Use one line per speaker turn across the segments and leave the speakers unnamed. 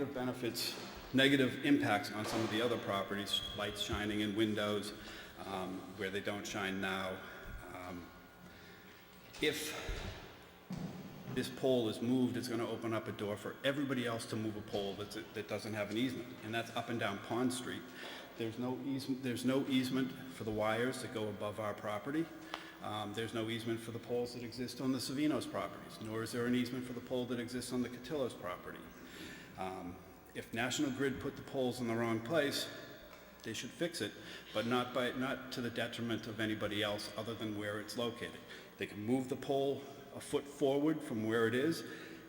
Negative benefits, negative impacts on some of the other properties, lights shining in windows um, where they don't shine now. Um, If this pole is moved, it's going to open up a door for everybody else to move a pole that's, that doesn't have an easement, and that's up and down Pond Street. There's no easement, there's no easement for the wires that go above our property. Um, There's no easement for the poles that exist on the Savino's properties, nor is there an easement for the pole that exists on the Cotillo's property. Um, If National Grid put the poles in the wrong place, they should fix it, but not by, not to the detriment of anybody else other than where it's located. They can move the pole a foot forward from where it is,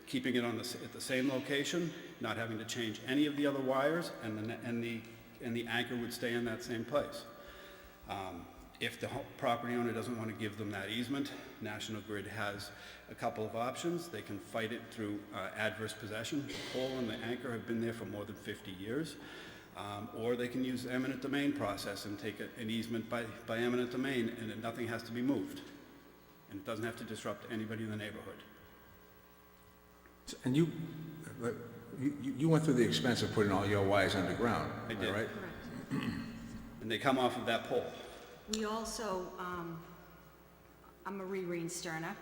keeping it on the, s- at the same location, not having to change any of the other wires, and the, ne- and the, and the anchor would stay in that same place. Um, If the ho- property owner doesn't want to give them that easement, National Grid has a couple of options. They can fight it through uh, adverse possession. The pole and the anchor have been there for more than 50 years. Um, Or they can use the eminent domain process and take a- an easement by, by eminent domain, and then nothing has to be moved. And it doesn't have to disrupt anybody in the neighborhood.
And you, but you you went through the expense of putting all your wires underground,
I
am I
did.
right?
And they come off of that pole.
We also, um, I'm Marie Reen Sterner,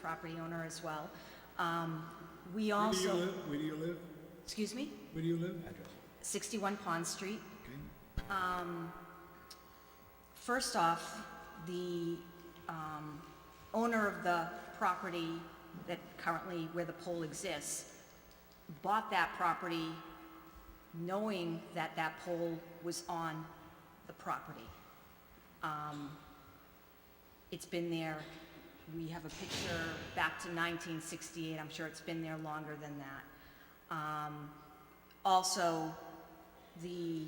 property owner as well. Um, we
Where do you
also,
live? Where do you live?
excuse me,
Where do you live?
61 Pond Street. Um, First off, the um, owner of the property that currently, where the pole exists, bought that property knowing that that pole was on the property. Um, It's been there, we have a picture back to 1968, I'm sure it's been there longer than that. Um, Also, the,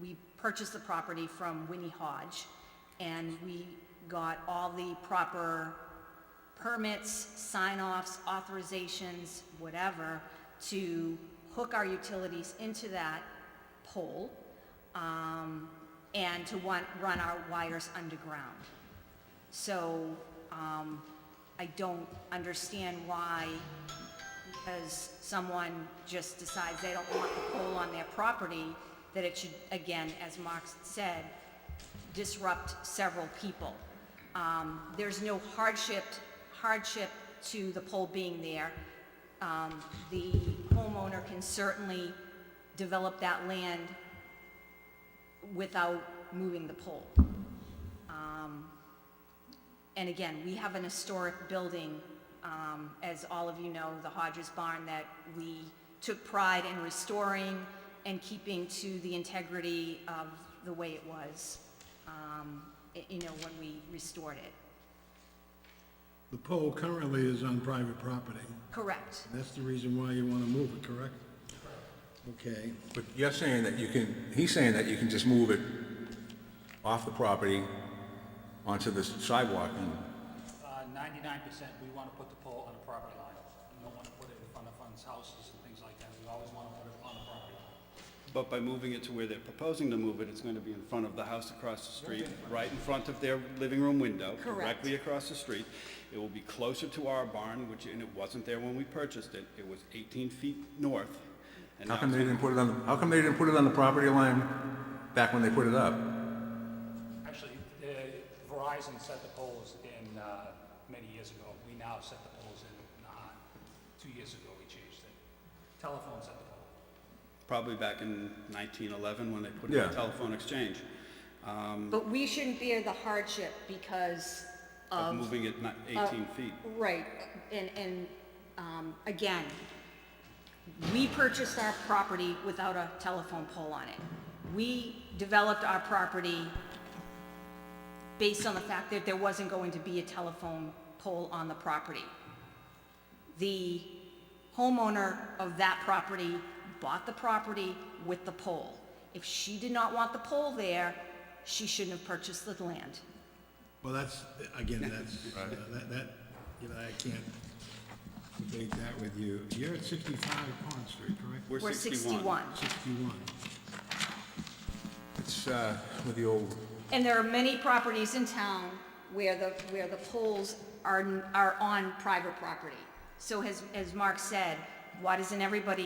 we purchased the property from Winnie Hodge, and we got all the proper permits, sign-offs, authorizations, whatever, to hook our utilities into that pole, um, and to want, run our wires underground. So, um, I don't understand why because someone just decides they don't want the pole on their property, that it should, again, as Mark said, disrupt several people. Um, There's no hardship, hardship to the pole being there. Um, The homeowner can certainly develop that land without moving the pole. And again, we have an historic building, um, as all of you know, the Hodges Barn, that we took pride in restoring and keeping to the integrity of the way it was, um, y- you know, when we restored it.
The pole currently is on private property.
Correct.
That's the reason why you want to move it, correct? Okay.
But you're saying that you can, he's saying that you can just move it off the property onto the sidewalk and,
Uh, Ninety-nine percent, we want to put the pole on the property line. We don't want to put it in front of funds, houses and things like that. We always want to put it on the property line.
But by moving it to where they're proposing to move it, it's going to be in front of the house across the street, right in front of their living room window,
Correct.
directly across the street. It will be closer to our barn, which, and it wasn't there when we purchased it. It was 18 feet north. and
how
now
come
it's
they didn't put it on, the- how come they didn't put it on the property line back when they put it up?
Actually, uh, Verizon set the poles in uh, many years ago. We now set the poles in, uh, two years ago, we changed it. Telephone set the pole.
Probably back in 1911 when they put in
Yeah.
the telephone exchange,
But we shouldn't bear the hardship because
of moving it
uh,
ni- 18 feet.
Right, and, and, um, again, we purchased our property without a telephone pole on it. We developed our property based on the fact that there wasn't going to be a telephone pole on the property. The homeowner of that property bought the property with the pole. If she did not want the pole there, she shouldn't have purchased the land.
Well, that's, again, that's, uh, that, that, you know, I can't debate that with you. You're at 65 Pond Street, correct?
We're 61.
61.
It's, uh, with the old,
And there are many properties in town where the, where the poles are, are on private property. So as, as Mark said, why doesn't everybody